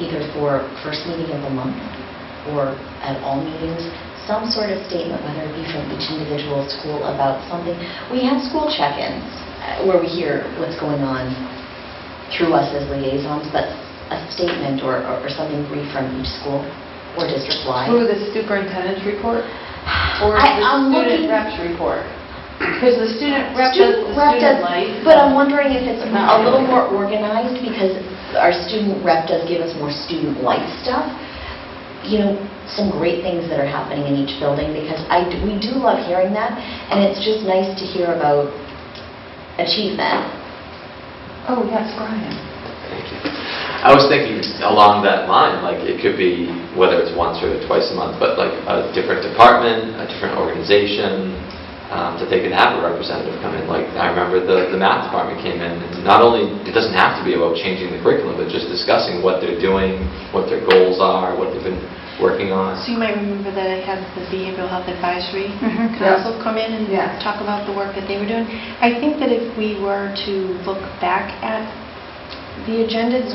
either for first meeting of the month or at all meetings, some sort of statement, whether it be from each individual school about something. We have school check-ins uh, where we hear what's going on through us as liaisons, but a statement or, or or something brief from each school or district-wide. Through the superintendent's report or I- the I'm looking- student rep's report? Because the student rep does Student the rep student does- life. But I'm wondering if it's No. a little more organized, because our student rep does give us more student life stuff. You know, some great things that are happening in each building, because I, d- we do love hearing that, and it's just nice to hear about achievement. Oh, yes, Brian. Thank you. I was thinking along that line, like, it could be, whether it's once or twice a month, but like a different department, a different organization, um, that they could have a representative come in. Like, I remember the, the math department came in, and not only, it doesn't have to be about changing the curriculum, but just discussing what they're doing, what their goals are, what they've been working on. So you might remember that I had the Behavioral Health Advisory Mm-hmm. Mhm. Council come in and Yeah. talk about the work that they were doing. I think that if we were to look back at the agendas,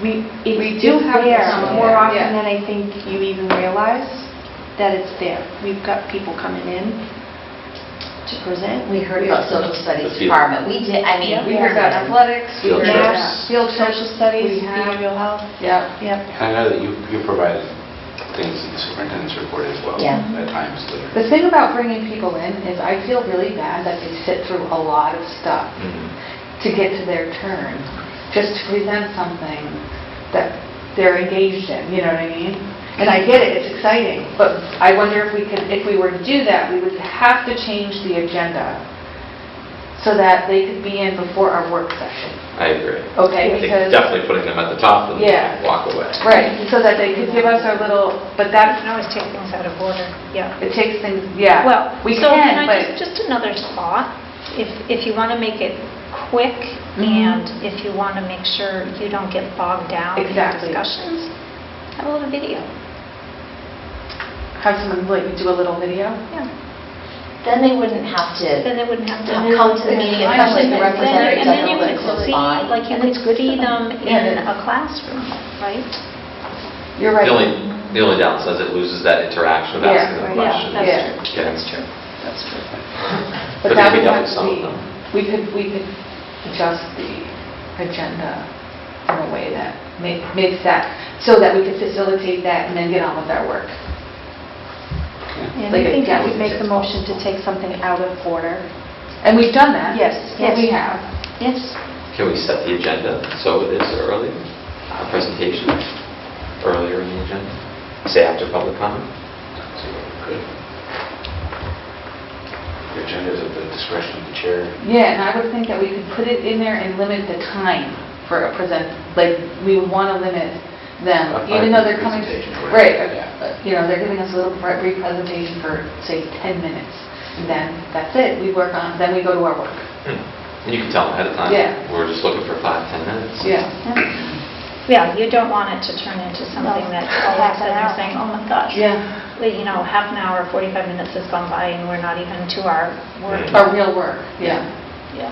we, We it's do do have there some of more that, often yeah. than I think you even realize that it's there. We've got people coming in to present. We heard about social studies department, we did, I mean. We heard about athletics, we Field heard trips. about field trips. Social We studies, have- behavioral health, Yeah. yep. I know that you, you provided things in the superintendent's report as well. Yeah. At times later. The thing about bringing people in is I feel really bad that they sit through a lot of stuff Mhm. to get to their turn, just to present something that they're engaged in, you know what I mean? And I get it, it's exciting, but I wonder if we could, if we were to do that, we would have to change the agenda so that they could be in before our work session, I agree. okay? I think Because definitely putting them at the top and Yeah. walk away. Right, so that they could give us our little, but You that's, can always take things out of order, yeah. it takes things, yeah. Well, We so can, I but, just, just another thought, if, if you want to make it quick Mhm. Mm-hmm. and if you want to make sure you don't get bogged down in Exactly. discussions, have a little video. have someone like do a little video? Yeah, Then they wouldn't have to then they wouldn't have to. come to the meeting, especially if I actually the think that's representative And then you doesn't could live see, by. like, you And could it's good see for them Yeah, in it is. a classroom, right? You're right. The only, the only downside is it loses that interaction of Yeah, asking them yeah, questions. that's Yeah, true. That's true. That's true. But But it that could would be done have with to some of be, them. we could, we could adjust the agenda in a way that ma- makes that, so that we could facilitate that and then get on with our work. And Like I a think that would calendar. make the motion to take something out of order. And we've done that. Yes, Yeah, We yes. have. Yes. Can we set the agenda so it is early, a presentation earlier in the agenda? Say after public comment? Good. The agenda is at the discretion of the chair. Yeah, and I would think that we could put it in there and limit the time for a present, like, we would want to limit them, A even though they're five-minute presentation coming. or Right, whatever, yeah. uh, you know, they're giving us a little bri- brief presentation for, say, 10 minutes, and then that's it, we work on, then we go to our work. Hmm. And you can tell them ahead of time. Yeah. We're just looking for five, 10 minutes. Yeah. Yeah, you don't want it to turn into something No. that all of a Half an sudden you're hour. saying, oh my gosh. Yeah, Well, You know, half an hour, 45 minutes has gone by and we're not even to our work. Right. our real work, yeah. Yeah.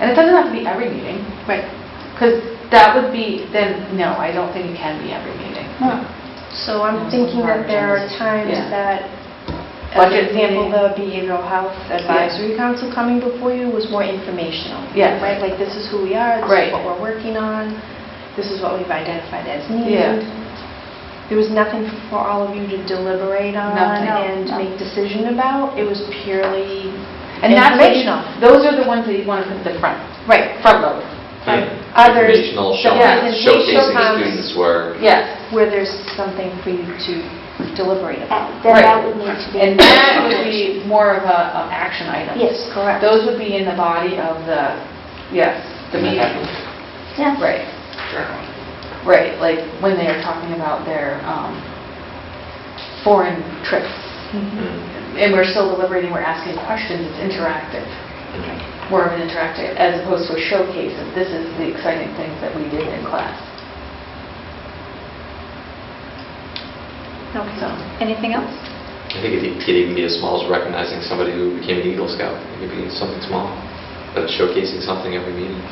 And it doesn't have to be every meeting, Right. because that would be, then, no, I don't think it can be every meeting. So I'm Yeah, thinking some that there are margins. times Yeah. that, as an Budget example, meeting. the Behavioral Health Advisory Council coming before you was more informational. Yes. Right, like this is who we are, this Right. is what we're working on, this is what we've identified as Yeah. needed. There was nothing for all of you to deliberate on Nothing. No, and no. make decision about. It was purely And that's, what you- informational. those are the ones that you want to put at the front, Right. front load. Hmm. Others, Informational, the showing- presentation showcasing the times. students' work. Yes. where there's something for you to deliberate about. Then that would need to be... And that would be more of a, an action item. Yes, correct. Those would be in the body of the, yes, the And then meeting. have a Yeah. Right, journal. right, like when they are talking about their um, foreign trips. Hmm. And we're still deliberating, we're asking questions, it's interactive. More of an interactive, as opposed to a showcase of this is the exciting things that we did in class. Okay. So, Anything else? I think it could even be as small as recognizing somebody who became an Eagle Scout. It could be something small, but showcasing something every meeting.